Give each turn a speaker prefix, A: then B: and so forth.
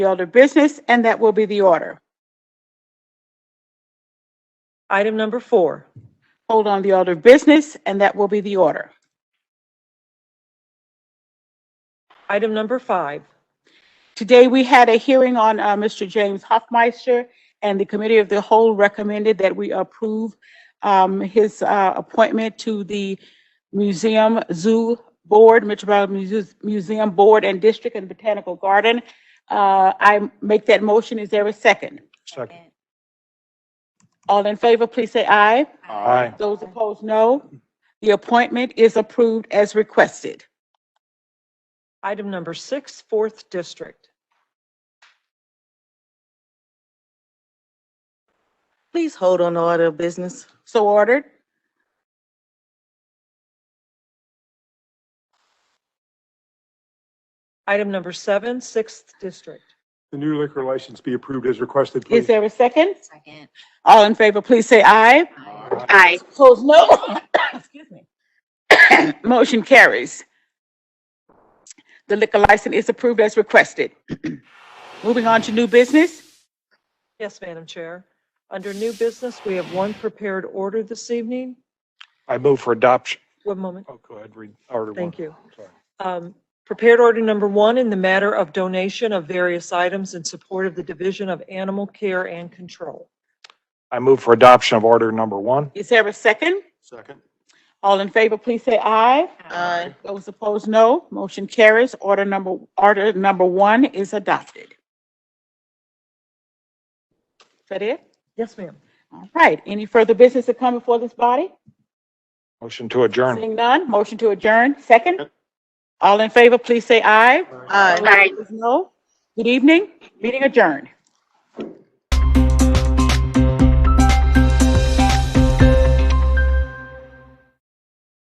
A: the other business, and that will be the order.
B: Item number four.
A: Hold on the other business, and that will be the order.
B: Item number five.
A: Today, we had a hearing on uh, Mr. James Hoffmeister, and the Committee of the Whole recommended that we approve um, his uh, appointment to the Museum Zoo Board, Metropolitan Muse- Museum Board and District and Botanical Garden. Uh, I make that motion. Is there a second?
C: Second.
A: All in favor, please say aye.
C: Aye.
A: Those opposed, no. The appointment is approved as requested.
B: Item number six, fourth district.
D: Please hold on the order of business.
A: So ordered.
B: Item number seven, sixth district.
C: The new liquor license be approved as requested,
A: Is
C: please.
A: there a second?
D: Second.
A: All in favor, please say aye. Aye. Opposed, no. Excuse me. Motion carries. The liquor license is approved as requested. Moving on to new business.
B: Yes, Madam Chair. Under new business, we have one prepared order this evening.
C: I move for adoption.
B: One moment.
C: Oh, go ahead, read order one.
B: Thank you.
C: Sorry.
B: Um, Prepared order number one in the matter of donation of various items in support of the Division of Animal Care and Control.
C: I move for adoption of order number one.
A: Is there a second?
C: Second.
A: All in favor, please say aye.
D: Aye.
A: Those opposed, no. Motion carries. Order number, order number one is adopted. Is that it?
B: Yes, ma'am.
A: All right. Any further business to come before this body?
C: Motion to adjourn.
A: Seeing none, motion to adjourn. Second? All in favor, please say aye.
D: Aye.
A: Those opposed, No. Good evening. Meeting adjourned.